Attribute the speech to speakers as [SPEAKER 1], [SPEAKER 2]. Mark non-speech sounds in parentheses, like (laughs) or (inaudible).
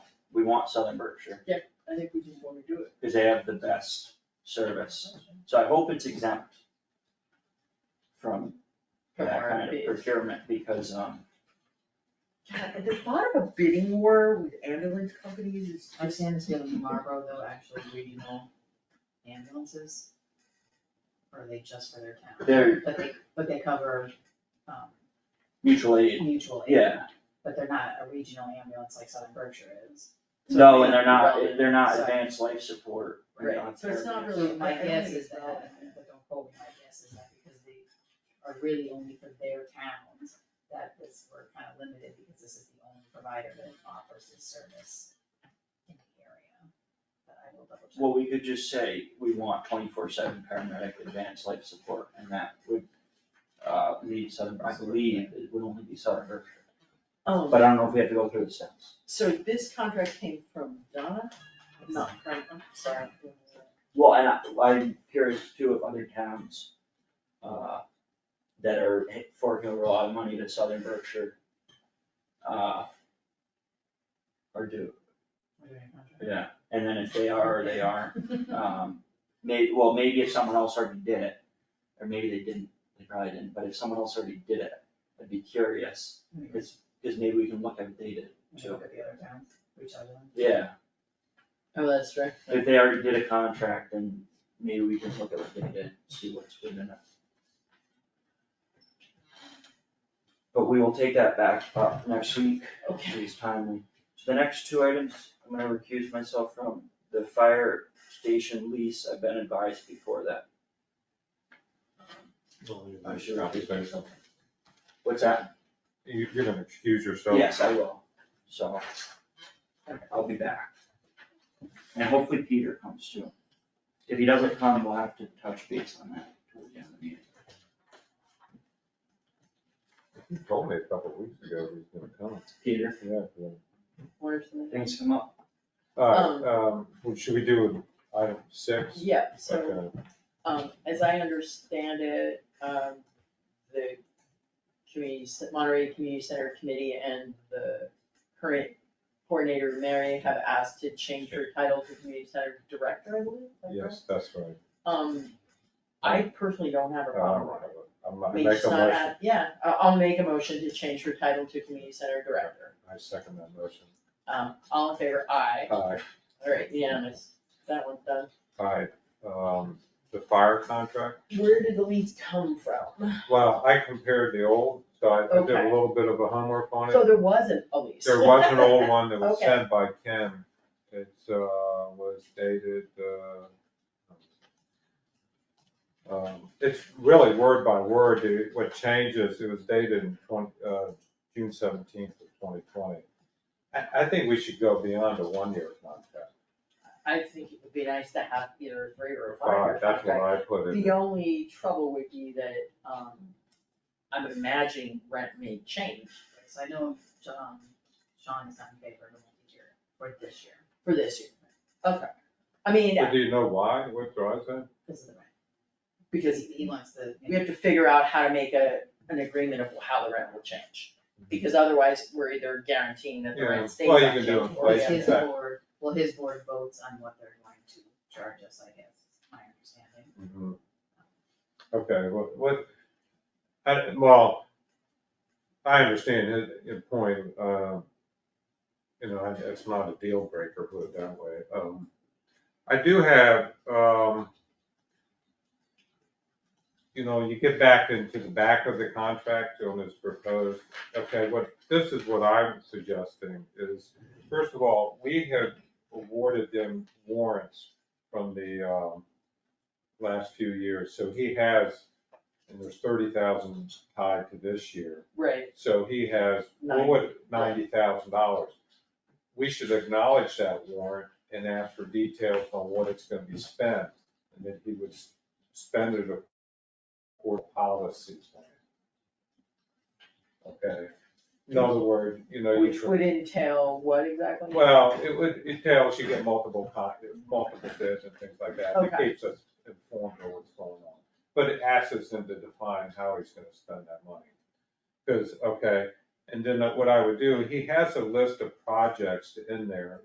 [SPEAKER 1] want Southern Berkshire,
[SPEAKER 2] I think we just wanna do it.
[SPEAKER 1] because they have the best service. So I hope it's exempt from
[SPEAKER 2] From
[SPEAKER 1] that kind of
[SPEAKER 2] RFPs.
[SPEAKER 1] procurement, because, um,
[SPEAKER 2] God, the thought of a bidding war with ambulance companies is
[SPEAKER 3] I
[SPEAKER 2] just,
[SPEAKER 3] understand it's gonna be Marlboro though, actually regional ambulances. Or are they just for their town?
[SPEAKER 1] they're
[SPEAKER 3] But they, but they cover, um,
[SPEAKER 1] mutual aid.
[SPEAKER 3] mutual aid.
[SPEAKER 1] Yeah.
[SPEAKER 3] But they're not a regional ambulance like Southern Berkshire is.
[SPEAKER 1] No, and they're not, they're not
[SPEAKER 3] So-
[SPEAKER 1] advanced life support. they're
[SPEAKER 2] Right,
[SPEAKER 1] not
[SPEAKER 2] so it's not
[SPEAKER 1] therapists.
[SPEAKER 2] really-
[SPEAKER 3] So my
[SPEAKER 2] I- I
[SPEAKER 3] guess
[SPEAKER 2] think
[SPEAKER 3] is
[SPEAKER 2] it's
[SPEAKER 3] that,
[SPEAKER 2] relevant.
[SPEAKER 3] but don't quote me, my guess is that because they are really only for their towns, that this, we're kind of limited because this is the only provider that offers this service in the area. But I will double check.
[SPEAKER 1] Well, we could just say, we want twenty-four seven paramedic advanced life support, and that would, uh, meet Southern, I believe, it would only be Southern Berkshire.
[SPEAKER 2] um,
[SPEAKER 1] But I don't know if we have to go through the steps.
[SPEAKER 2] so this contract came from Donna, not Franklin,
[SPEAKER 3] (laughs)
[SPEAKER 2] sorry.
[SPEAKER 1] Well, and I, I'm curious too if other towns, uh, that are forking over a lot of money to Southern Berkshire, uh, are due, yeah, and then if they are, or they aren't, um, may, well, maybe if someone else already did it, or maybe they didn't, they probably didn't, but if someone else already did it, I'd be curious, because, because maybe we can look at what they did
[SPEAKER 3] Maybe
[SPEAKER 2] Mm-hmm.
[SPEAKER 1] too.
[SPEAKER 3] look at the other towns, reach out to them.
[SPEAKER 1] Yeah,
[SPEAKER 2] Oh, that's right.
[SPEAKER 1] if they already did a contract, then maybe we can look at what they did, see what's within it. But we will take that back up next week,
[SPEAKER 2] Okay.
[SPEAKER 1] it's timely. The next two items, I'm gonna recuse myself from the fire station lease, I've been advised before that. I should probably Um, What's that?
[SPEAKER 4] You- You're gonna excuse yourself.
[SPEAKER 1] Yes, I will, so I'll be back. And hopefully Peter comes too. If he doesn't come, we'll have to touch base on that toward the end of the meeting.
[SPEAKER 4] He told me a couple of weeks ago he was gonna come.
[SPEAKER 1] Peter,
[SPEAKER 4] Yeah, yeah.
[SPEAKER 2] Where's the-
[SPEAKER 1] things come up.
[SPEAKER 4] All right, um, what should we do with item six?
[SPEAKER 2] Yeah, so.
[SPEAKER 4] Okay.
[SPEAKER 2] Um, as I understand it, um, the community, C- Monterey Community Center Committee and the current coordinator, Mary, have asked to change her title to Community Center Director, I believe. is that correct?
[SPEAKER 4] Yes, that's right.
[SPEAKER 2] Um, I personally don't have a
[SPEAKER 4] Uh,
[SPEAKER 2] problem with it.
[SPEAKER 4] I'm
[SPEAKER 2] I
[SPEAKER 4] not,
[SPEAKER 2] mean,
[SPEAKER 4] make
[SPEAKER 2] it's
[SPEAKER 4] a
[SPEAKER 2] not
[SPEAKER 4] motion.
[SPEAKER 2] at- Yeah, I- I'll make a motion to change her title to Community Center Director.
[SPEAKER 4] I second that motion.
[SPEAKER 2] Um, all in favor, aye.
[SPEAKER 4] Aye,
[SPEAKER 2] All right, unanimous. That one's done.
[SPEAKER 4] aye. Um, the fire contract,
[SPEAKER 2] Where did the leads come from?
[SPEAKER 4] well, I compared the old, so I I did a
[SPEAKER 2] Okay.
[SPEAKER 4] little bit of a homework on it.
[SPEAKER 2] So there wasn't a lease.
[SPEAKER 4] There was an old one that was
[SPEAKER 2] Okay.
[SPEAKER 4] sent by Ken. It, uh, was dated, uh, um, it's really word by word, it- what changes, it was dated in twenty, uh, June seventeenth of twenty twenty. I, I think we should go beyond a one-year contract.
[SPEAKER 2] (laughs) I think it would be nice to have either three or
[SPEAKER 4] Five,
[SPEAKER 2] five.
[SPEAKER 4] that's what I put in.
[SPEAKER 2] The only trouble would be that, um, I'm imagining rent may change
[SPEAKER 3] So I know, um, Sean is not in favor of the multi-year for this year,
[SPEAKER 2] for this year. Okay, I mean,
[SPEAKER 4] But do you know why? What drives that?
[SPEAKER 3] because of the rent.
[SPEAKER 2] because
[SPEAKER 3] He he wants the.
[SPEAKER 2] we have to figure out how to make a, an agreement of how the rent will change. Because otherwise, we're either guaranteeing that the
[SPEAKER 4] Yeah,
[SPEAKER 2] rent stays
[SPEAKER 4] well, you can
[SPEAKER 2] unchanged.
[SPEAKER 4] do
[SPEAKER 2] or the
[SPEAKER 4] inflation.
[SPEAKER 2] other.
[SPEAKER 3] His
[SPEAKER 4] Yeah.
[SPEAKER 3] board, well, his board votes on what they're going to charge us, I guess, is my understanding.
[SPEAKER 4] Mhm. Okay, what, what, I, well, I understand his, his point, um, you know, I- it's not a deal breaker, put it that way. Um, I do have, um, you know, you get back into the back of the contract on this proposed, okay, what, this is what I'm suggesting is, first of all, we had awarded them warrants from the, um, last few years, so he has, and there's thirty thousand tied to this year.
[SPEAKER 2] Right,
[SPEAKER 4] So he has, well, what, ninety thousand dollars. We should acknowledge that warrant and ask for details on what it's gonna be spent, and then he would s- spend it according to policy. Okay, in other words, you know, you
[SPEAKER 2] which
[SPEAKER 4] tr-
[SPEAKER 2] would entail what exactly?
[SPEAKER 4] well, it would, it tells you get multiple con, multiple bids and things like that, it
[SPEAKER 2] Okay.
[SPEAKER 4] keeps us informed of what's going on. But it asks him to define how he's gonna spend that money. Cause, okay, and then what I would do, he has a list of projects in there